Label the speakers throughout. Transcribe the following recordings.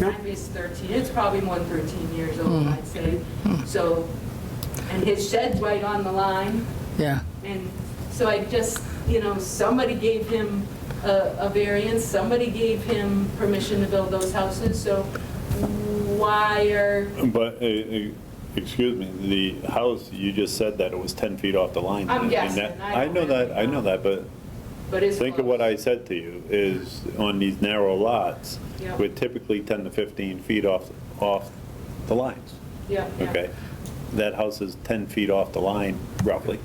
Speaker 1: time is 13, it's probably more than 13 years old, I'd say. So, and his shed's right on the line,
Speaker 2: yeah.
Speaker 1: and so I just, you know, somebody gave him a a variance, somebody gave him permission to build those houses, so why are,
Speaker 3: But, uh, uh, excuse me, the house, you just said that it was 10 feet off the line.
Speaker 1: I'm
Speaker 3: and
Speaker 1: guessing.
Speaker 3: that-
Speaker 1: I
Speaker 3: I know
Speaker 1: don't
Speaker 3: that, I know
Speaker 1: know.
Speaker 3: that, but
Speaker 1: but it's...
Speaker 3: think of what I said to you, is on these narrow lots,
Speaker 1: Yeah.
Speaker 3: we're typically 10 to 15 feet off, off the lines,
Speaker 1: Yeah, yeah.
Speaker 3: okay? That house is 10 feet off the line roughly.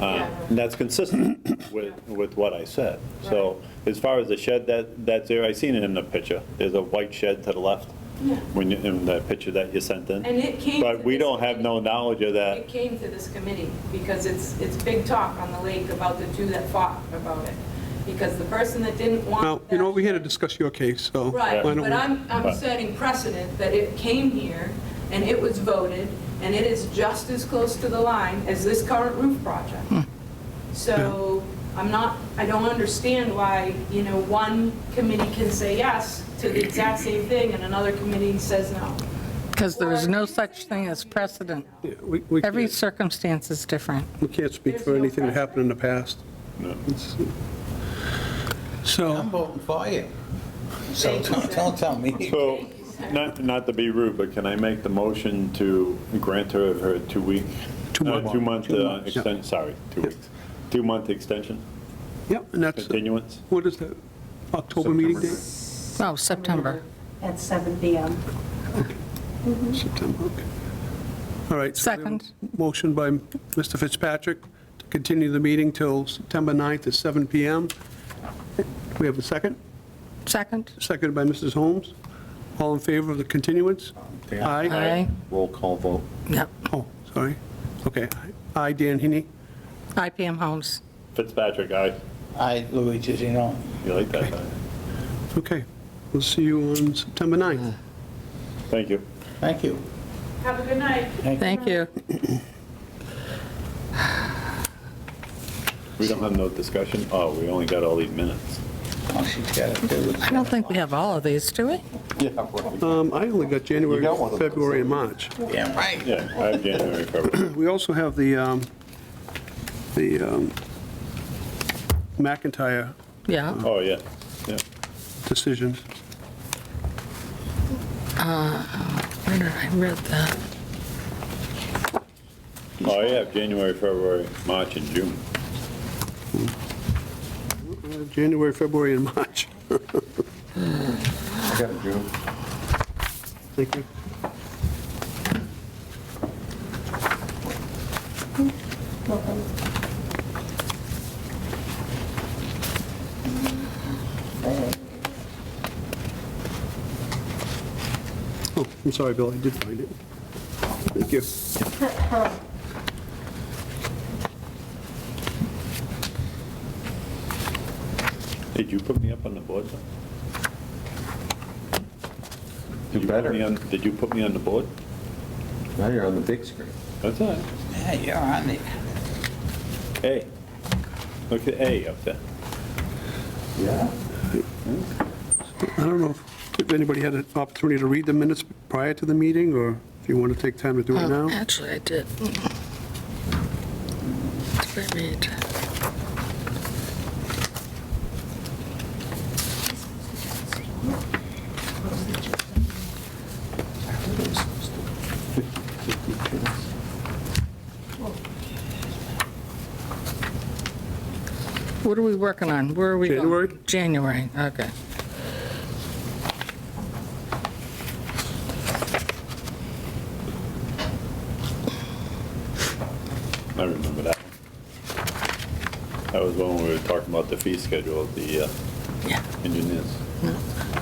Speaker 3: Uh,
Speaker 1: Yeah.
Speaker 3: And that's consistent with, with what I said. So as far as the shed, that, that's there, I seen it in the picture. There's a white shed to the left,
Speaker 1: Yeah.
Speaker 3: when, you- in the picture that you sent in.
Speaker 1: And it came to
Speaker 3: But we
Speaker 1: this
Speaker 3: don't have no
Speaker 1: committee.
Speaker 3: knowledge of that.
Speaker 1: It came to this committee because it's, it's big talk on the lake about the two that fought about it. Because the person that didn't want.
Speaker 4: Well, you know,
Speaker 1: that-
Speaker 4: we're here to discuss your case, so.
Speaker 1: Right,
Speaker 4: why don't
Speaker 1: but
Speaker 4: we-
Speaker 1: I'm, I'm
Speaker 3: Right.
Speaker 1: setting precedent that it came here and it was voted and it is just as close to the line as this current roof project. So I'm not, I don't understand why, you know, one committee can say yes to the exact same thing and another committee says no.
Speaker 2: Because there is no such thing as precedent.
Speaker 4: Yeah, We we
Speaker 2: Every
Speaker 4: can't
Speaker 2: circumstance is different.
Speaker 4: we can't speak
Speaker 1: There's
Speaker 4: for
Speaker 1: no
Speaker 4: anything that
Speaker 1: precedent.
Speaker 4: happened in the past. It's-
Speaker 5: I'm
Speaker 4: So,
Speaker 5: voting for you. So
Speaker 1: Thank you,
Speaker 5: don't,
Speaker 1: sir.
Speaker 5: don't tell me.
Speaker 3: So, not, not to be rude, but can I make the motion to grant her her two-week?
Speaker 4: Two
Speaker 3: uh,
Speaker 4: month.
Speaker 3: Two-month
Speaker 4: Two
Speaker 3: uh,
Speaker 4: months, yeah.
Speaker 3: extension, sorry, two weeks. Two-month extension,
Speaker 4: yep, and that's,
Speaker 3: continuance?
Speaker 4: what is that, October meeting date?
Speaker 2: No, Oh, September.
Speaker 6: At 7 PM.
Speaker 4: September, okay. All right. so we have a
Speaker 2: Second.
Speaker 4: Motion by Mr. Fitzpatrick to continue the meeting till September 9th at 7 PM. We have a second,
Speaker 2: Second?
Speaker 4: seconded by Mrs. Holmes. All in favor of the continuance? Aye.
Speaker 2: Aye.
Speaker 3: Roll call vote.
Speaker 2: Yep.
Speaker 4: Oh, sorry. Okay. Aye, Dan Heaney.
Speaker 2: IPM Homes.
Speaker 3: Fitzpatrick, aye.
Speaker 5: I, Luigi, you know,
Speaker 3: You like that, huh?
Speaker 4: Okay. We'll see you on September 9th.
Speaker 3: Thank you.
Speaker 5: thank you.
Speaker 1: Have a good night.
Speaker 2: Thank you.
Speaker 3: We don't have no discussion? Oh, we only got all these minutes.
Speaker 5: Oh, she's got to do it.
Speaker 2: I don't think we have all of these, do we?
Speaker 4: Um, I only got January, February, and March.
Speaker 5: Damn right.
Speaker 3: Yeah, I have January, February.
Speaker 4: We also have the, um, the um, McIntyre
Speaker 2: Yeah.
Speaker 3: Oh, yeah, yeah.
Speaker 4: decision.
Speaker 2: Where did I read that?
Speaker 3: Oh, yeah, January, February, March, and June.
Speaker 4: Uh, January, February, and March.
Speaker 7: I got a June.
Speaker 4: Thank you. Oh, I'm sorry, Bill, I did find it. Thank you.
Speaker 3: Did you put me up on the board? though? Did
Speaker 7: You
Speaker 3: put
Speaker 7: better.
Speaker 3: me on- Did you put me on the board?
Speaker 7: Now you're on the big screen.
Speaker 3: That's all right.
Speaker 5: Yeah, you're on it.
Speaker 3: A. Look at A up there.
Speaker 7: Yeah.
Speaker 4: I don't know if- if anybody had an opportunity to read the minutes prior to the meeting, or if you want to take time to do it
Speaker 2: Oh,
Speaker 4: now.
Speaker 2: Actually, I did. Did I read? What are we working on? Where are we going?
Speaker 4: January?
Speaker 2: January, okay.
Speaker 3: I remember that. That was when we were talking about the fee schedule of the uh,
Speaker 2: Yeah.
Speaker 3: engineers.